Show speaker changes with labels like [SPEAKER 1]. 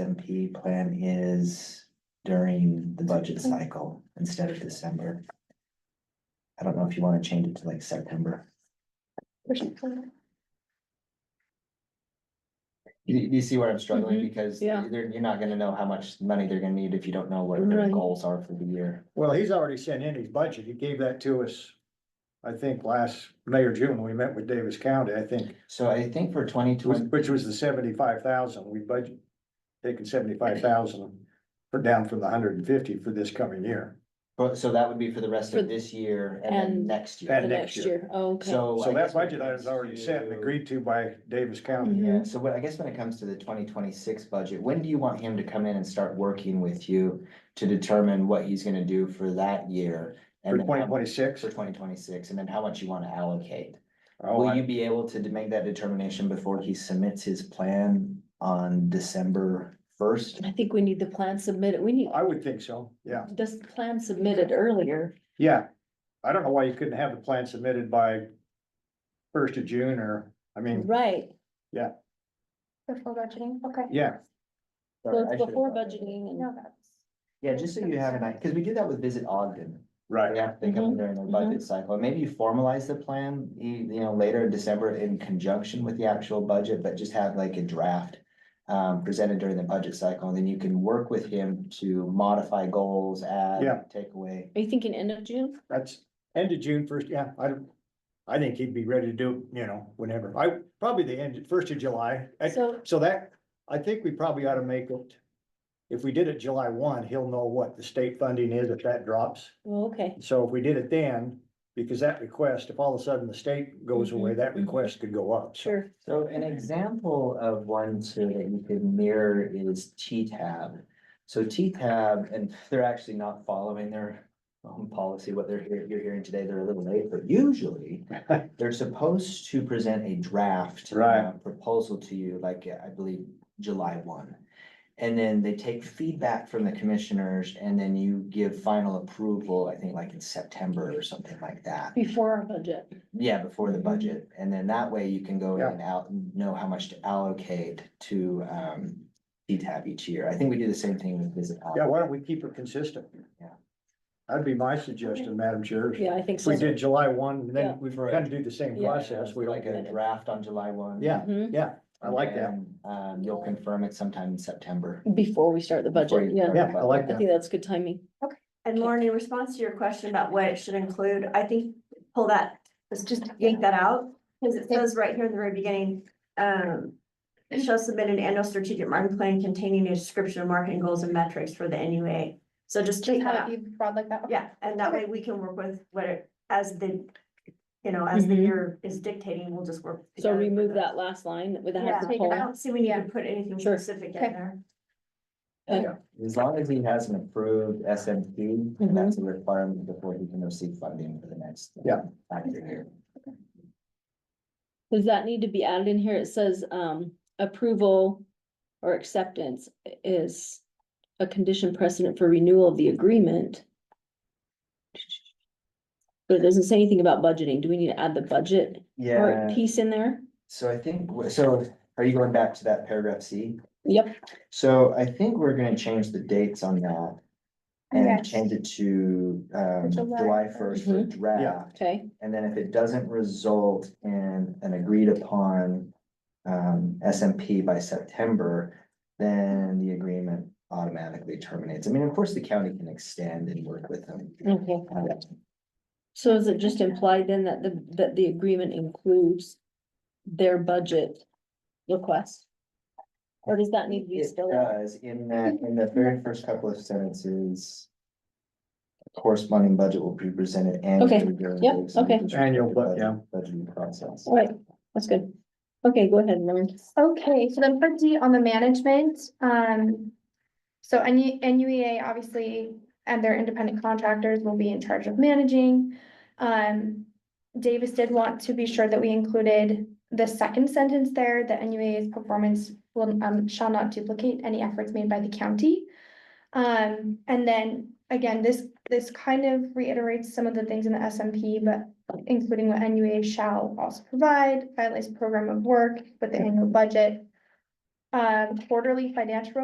[SPEAKER 1] SMP plan is during the budget cycle instead of December. I don't know if you wanna change it to like September. You, you see where I'm struggling
[SPEAKER 2] Mhm.
[SPEAKER 1] because
[SPEAKER 2] Yeah.
[SPEAKER 1] they're- you're not gonna know how much money they're gonna need if you don't know what their
[SPEAKER 2] Right.
[SPEAKER 1] goals are for the year.
[SPEAKER 3] Well, he's already sent in his budget. He gave that to us, I think, last May or June, when we met with Davis County, I think,
[SPEAKER 1] So I think for twenty twenty,
[SPEAKER 3] which was the seventy-five thousand. We budget, taken seventy-five thousand, put down from the hundred and fifty for this coming year.
[SPEAKER 1] so that would be for the rest
[SPEAKER 2] For-
[SPEAKER 1] of this year and then
[SPEAKER 2] and-
[SPEAKER 1] next
[SPEAKER 3] And
[SPEAKER 2] The
[SPEAKER 1] year.
[SPEAKER 2] next
[SPEAKER 3] next year.
[SPEAKER 2] year, oh, okay.
[SPEAKER 1] So. I
[SPEAKER 3] So
[SPEAKER 1] guess
[SPEAKER 3] that
[SPEAKER 1] when it
[SPEAKER 3] budget item is
[SPEAKER 1] comes
[SPEAKER 3] already set and
[SPEAKER 1] to-
[SPEAKER 3] agreed to by Davis County.
[SPEAKER 1] Yeah,
[SPEAKER 2] Mhm.
[SPEAKER 1] so what, I guess when it comes to the twenty twenty-six budget, when do you want him to come in and start working with you to determine what he's gonna do for that year?
[SPEAKER 3] For
[SPEAKER 1] and then
[SPEAKER 3] twenty
[SPEAKER 1] how-
[SPEAKER 3] twenty-six.
[SPEAKER 1] For twenty twenty-six, and then how much you wanna allocate?
[SPEAKER 3] Oh,
[SPEAKER 1] Will you be able to de- make that determination before he submits his plan on December first?
[SPEAKER 2] I think we need the plan submitted, we need,
[SPEAKER 3] I would think so, yeah,
[SPEAKER 2] this plan submitted earlier,
[SPEAKER 3] yeah. I don't know why you couldn't have the plan submitted by first of June or, I mean,
[SPEAKER 2] right?
[SPEAKER 4] Before budgeting, okay.
[SPEAKER 3] yeah,
[SPEAKER 2] So it's before budgeting and,
[SPEAKER 4] No, that's.
[SPEAKER 1] Yeah, just so you have an idea, because we did that with Visit Ogden.
[SPEAKER 3] right.
[SPEAKER 1] Yeah, they come in during their
[SPEAKER 2] mhm.
[SPEAKER 1] budget cycle, and maybe you formalize the plan, you, you know, later in December in conjunction with the actual budget, but just have like a draft. Um, presented during the budget cycle, and then you can work with him to modify goals,
[SPEAKER 3] Yeah.
[SPEAKER 1] add, take away.
[SPEAKER 2] are you thinking end of June?
[SPEAKER 3] That's end of June first, yeah, I don't, I think he'd be ready to do, you know, whenever, I, probably the end, first of July. I-
[SPEAKER 2] So,
[SPEAKER 3] So that, I think we probably ought to make it, if we did it July one, he'll know what the state funding is if that drops.
[SPEAKER 2] well, okay,
[SPEAKER 3] So if we did it then, because that request, if all of a sudden the state goes away, that
[SPEAKER 2] Mhm, mhm.
[SPEAKER 3] request could go up. So
[SPEAKER 2] sure,
[SPEAKER 1] So an example of one too that you could mirror is T-Tab. So T-Tab, and they're actually not following their own policy, what they're here, you're hearing today, they're a little late, but usually they're supposed to present a draft
[SPEAKER 3] Right.
[SPEAKER 1] uh, proposal to you, like uh, I believe July one. And then they take feedback from the commissioners and then you give final approval, I think like in September or something like that.
[SPEAKER 2] before our budget.
[SPEAKER 1] Yeah, before the
[SPEAKER 2] Mhm.
[SPEAKER 1] budget, and then that way you can go in
[SPEAKER 3] Yeah.
[SPEAKER 1] and out, and know how much to allocate to um. P-TAB each year, I think we do the same thing with uh, visit.
[SPEAKER 3] Yeah,
[SPEAKER 1] Allen.
[SPEAKER 3] why don't we keep it consistent?
[SPEAKER 1] Yeah.
[SPEAKER 3] That'd be my suggestion, Madam Chair.
[SPEAKER 2] Yeah, I think
[SPEAKER 3] If
[SPEAKER 2] so.
[SPEAKER 3] we did July one,
[SPEAKER 2] Yeah.
[SPEAKER 3] then we
[SPEAKER 1] For a-
[SPEAKER 3] kind of do the same
[SPEAKER 2] Yeah.
[SPEAKER 3] process. We
[SPEAKER 1] Like
[SPEAKER 3] like
[SPEAKER 1] a
[SPEAKER 3] it.
[SPEAKER 1] draft on July one.
[SPEAKER 3] Yeah,
[SPEAKER 2] Mhm.
[SPEAKER 3] yeah, I like that.
[SPEAKER 1] And, Um, you'll confirm it sometime in September.
[SPEAKER 2] Before we start the
[SPEAKER 1] before
[SPEAKER 2] budget,
[SPEAKER 1] you
[SPEAKER 2] yeah,
[SPEAKER 1] start the
[SPEAKER 3] Yeah, I like
[SPEAKER 1] budget.
[SPEAKER 2] I think that's good timing.
[SPEAKER 5] And Lauren, in response to your question about what it should include, I think pull that, let's just yank that out. Cause it says right here in the very beginning, um. It shall submit an annual strategic marketing plan containing a description of marketing goals and metrics for the NUA. So just take that
[SPEAKER 4] Have
[SPEAKER 5] out,
[SPEAKER 4] you broad like that?
[SPEAKER 5] yeah, and that way we can work with what it, as the. You know, as the
[SPEAKER 2] Mhm.
[SPEAKER 5] year is dictating, we'll just work.
[SPEAKER 2] So
[SPEAKER 5] together for
[SPEAKER 2] remove
[SPEAKER 5] the-
[SPEAKER 2] that last line with the
[SPEAKER 4] Yeah,
[SPEAKER 2] half the
[SPEAKER 4] take it
[SPEAKER 5] I
[SPEAKER 2] whole.
[SPEAKER 5] don't see we need to
[SPEAKER 4] Yeah.
[SPEAKER 5] put anything
[SPEAKER 2] Sure.
[SPEAKER 5] specific in
[SPEAKER 4] Okay.
[SPEAKER 5] there.
[SPEAKER 1] As long as he has an approved SMP,
[SPEAKER 2] Mm-hmm.
[SPEAKER 1] and that's a requirement before he can receive funding for the next. uh,
[SPEAKER 3] Yeah.
[SPEAKER 1] Active year.
[SPEAKER 2] Does that need to be added in here? It says, um, approval or acceptance is a condition precedent for renewal of the agreement. But it doesn't say anything about budgeting. Do we need to add the budget
[SPEAKER 1] Yeah,
[SPEAKER 2] or piece in there?
[SPEAKER 1] so I think, so are you going back to that paragraph C?
[SPEAKER 2] Yep,
[SPEAKER 1] So I think we're gonna change the dates on that. And
[SPEAKER 4] Yes.
[SPEAKER 1] change it to um
[SPEAKER 4] July
[SPEAKER 1] July first for draft,
[SPEAKER 2] okay,
[SPEAKER 1] and then if it doesn't result in an agreed upon. Um, SMP by September, then the agreement automatically terminates. I mean, of course, the county can extend and work with them.
[SPEAKER 2] okay.
[SPEAKER 1] Uh,
[SPEAKER 2] So is it just implied then that the, that the agreement includes their budget request? Or does that need to be
[SPEAKER 1] It
[SPEAKER 2] still?
[SPEAKER 1] does, in that, in the very first couple of sentences. Corresponding budget will be presented annually during. the
[SPEAKER 2] yep,
[SPEAKER 1] executive
[SPEAKER 2] okay.
[SPEAKER 1] session
[SPEAKER 3] Annual,
[SPEAKER 1] of
[SPEAKER 3] but
[SPEAKER 1] the
[SPEAKER 3] yeah.
[SPEAKER 1] Budgeting process.
[SPEAKER 2] All right, that's good. Okay, go ahead, Lauren.
[SPEAKER 4] Okay, so then for D on the management, um. So NU, NUEA E obviously and their independent contractors will be in charge of managing. Um, Davis did want to be sure that we included the second sentence there, that NUEA's performance will, um, shall not duplicate any efforts made by the county. Um, and then again, this, this kind of reiterates some of the things in the SMP, but including what NUA shall also provide, finalize program of work with the annual budget, um, quarterly financial